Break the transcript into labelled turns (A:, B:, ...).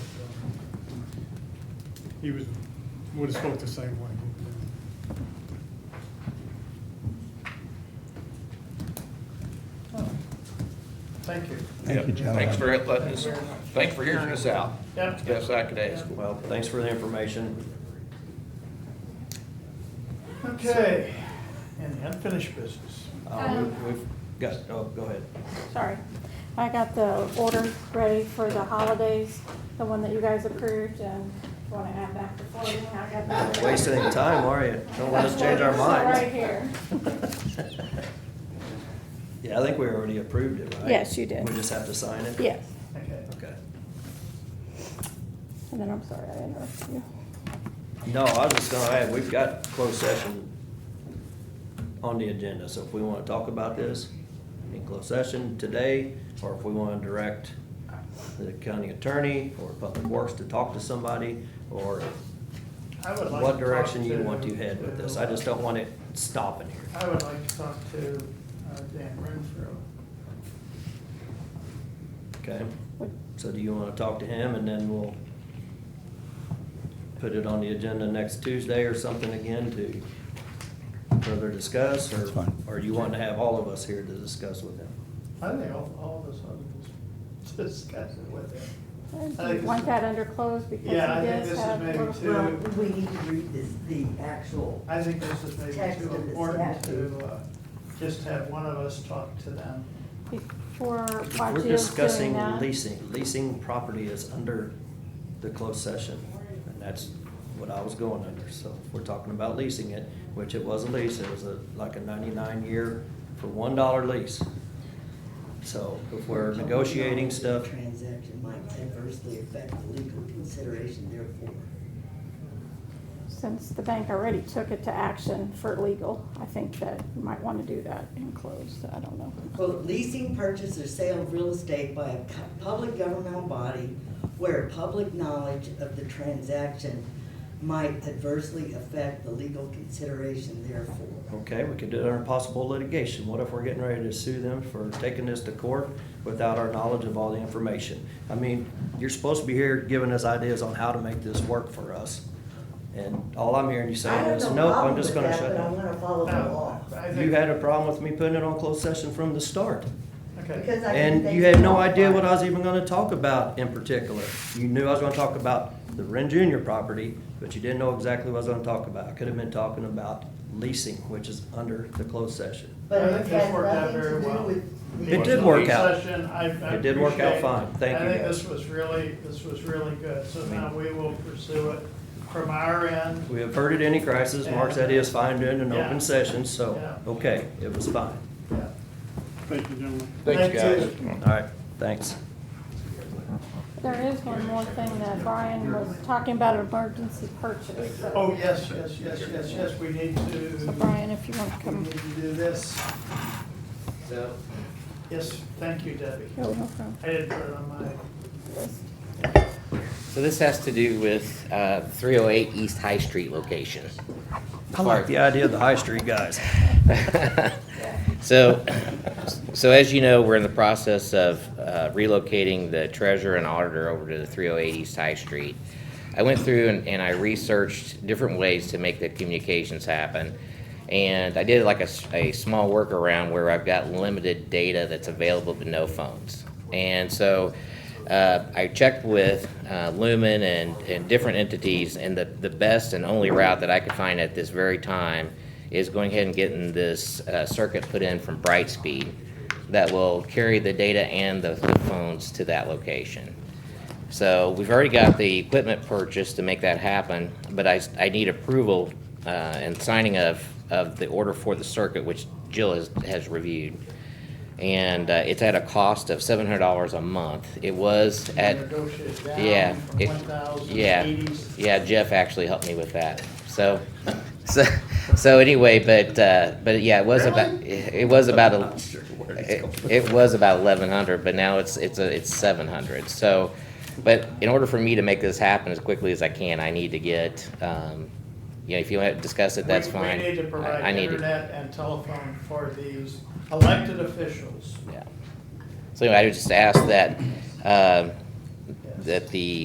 A: he was, would have spoke the same way.
B: Oh, Thank you.
C: Thank you, gentlemen.
D: Thanks for letting us,
B: Thank you very much.
D: thanks for hearing us out.
B: Yep.
D: It's the best I could ask.
E: Well, thanks for the information.
B: Okay, and the unfinished business.
E: Uh,
F: Um,
E: we- We've got, oh, go ahead.
F: Sorry. I got the order ready for the holidays, the one that you guys approved, and want to add back before we have that.
E: Not
F: back.
E: Wasting any time, are you? Don't let us change our
F: It's
E: minds.
F: Right here.
E: Yeah, I think we already approved it, right?
F: Yes, you did.
E: We just have to sign it?
F: Yes.
B: Okay.
E: Okay.
F: And then I'm sorry, I interrupted you.
E: No, I was just gonna add, we've got closed session on the agenda, so if we wanna talk about this in closed session today, or if we wanna direct the county attorney or public works to talk to somebody, or
B: I would like to
E: what
B: talk
E: direction you want to head with this, I just don't want it stopping here.
B: I would like to talk to uh, Dan Renfro.
E: Okay, so do you wanna talk to him and then we'll put it on the agenda next Tuesday or something again to further discuss? or-
C: That's fine.
E: Or you want to have all of us here to discuss with him?
B: I think all, all of us ought to discuss it with him. I
F: Do
B: think
F: you
B: this
F: want
B: is-
F: that under close because he
B: Yeah, I think this
F: does
B: is
F: have.
B: maybe
F: little-
B: too-
G: Well, we need to read this, the actual,
B: I think this is maybe
G: Text
B: too
G: of this
B: important
G: statute.
B: to, uh, just have one of us talk to them.
F: Before, while
E: We're
F: Jill's doing
E: discussing
F: that.
E: leasing. Leasing property is under the closed session. And that's what I was going under. So if we're talking about leasing it, which it was a lease. It was a, like a ninety-nine year for one dollar lease. So if we're negotiating stuff,
G: Transaction might adversely affect the legal consideration therefore.
F: Since the bank already took it to action for legal, I think that you might want to do that in close, I don't know.
G: Quote, leasing, purchase, or sale of real estate by a co- public governmental body where public knowledge of the transaction might adversely affect the legal consideration therefore.
E: okay, we could do it under possible litigation. What if we're getting ready to sue them for taking this to court without our knowledge of all the information? I mean, you're supposed to be here giving us ideas on how to make this work for us. And all I'm hearing you saying is, nope, I'm just gonna shut
G: I have no
E: down.
G: problem with that, but I wanna follow the law.
B: No, I think-
E: You had a problem with me putting it on closed session from the start.
B: Okay,
G: Because I didn't
E: And
G: think
E: you had no
G: about
E: idea
G: it.
E: what I was even gonna talk about in particular. You knew I was gonna talk about the Ren Junior property, but you didn't know exactly what I was gonna talk about. I could have been talking about leasing, which is under the closed session.
G: But
B: I
G: it
B: think this
G: has
B: worked out
G: nothing
B: very
G: to do
B: well.
G: with.
E: It did work out.
B: Session, I- I
E: It did work out
B: appreciate-
E: fine. Thank you,
B: I think
E: guys.
B: this was really, this was really good, so now we will pursue it from our end.
E: We averted any crisis. Mark said he was fine doing an
B: Yeah.
E: open session, so,
B: Yeah.
E: okay, it was fine.
B: Yeah.
A: Thank you, gentlemen.
D: Thanks, guys.
B: you.
E: All right, thanks.
F: There is one more thing that Brian was talking about emergency purchase. so-
B: Oh, yes, yes, yes, yes, yes, we need to.
F: So Brian, if you want to
B: We
F: come.
B: need to do this. Yes, thank you, Debbie.
F: go, no problem.
B: I didn't put it on my,
H: So this has to do with uh, 308 East High Street location.
E: I like the idea of the High Street guys.
H: So, so as you know, we're in the process of uh, relocating the treasurer and auditor over to the 308 East High Street. I went through and and I researched different ways to make the communications happen. And I did like a, s- a small workaround where I've got limited data that's available but no phones. And so uh, I checked with uh, Lumen and, and different entities, and the, the best and only route that I could find at this very time is going ahead and getting this uh, circuit put in from Brightspeed that will carry the data and the the phones to that location. So we've already got the equipment purchased to make that happen, but I, I need approval uh, and signing of, of the order for the circuit, which Jill has, has reviewed. And uh, it's at a cost of seven hundred dollars a month. It was
B: I
H: at.
B: negotiated
H: Yeah,
B: down from
H: it-
B: one thousand
H: Yeah,
B: eighty.
H: yeah, Jeff actually helped me with that, so, so, so anyway, but, uh, but yeah, it was about, it it was about,
E: I'm not
H: a-
E: sure where it's
H: it
E: going.
H: it was about eleven hundred, but now it's, it's, a it's seven hundred, so, but in order for me to make this happen as quickly as I can, I need to get, um, you know, if you want to discuss it, that's
B: We-
H: fine.
B: We need to
H: I-
B: provide
H: I need to-
B: internet and telephone for these elected officials.
H: Yeah. So anyway, I just asked uh, that, um, that the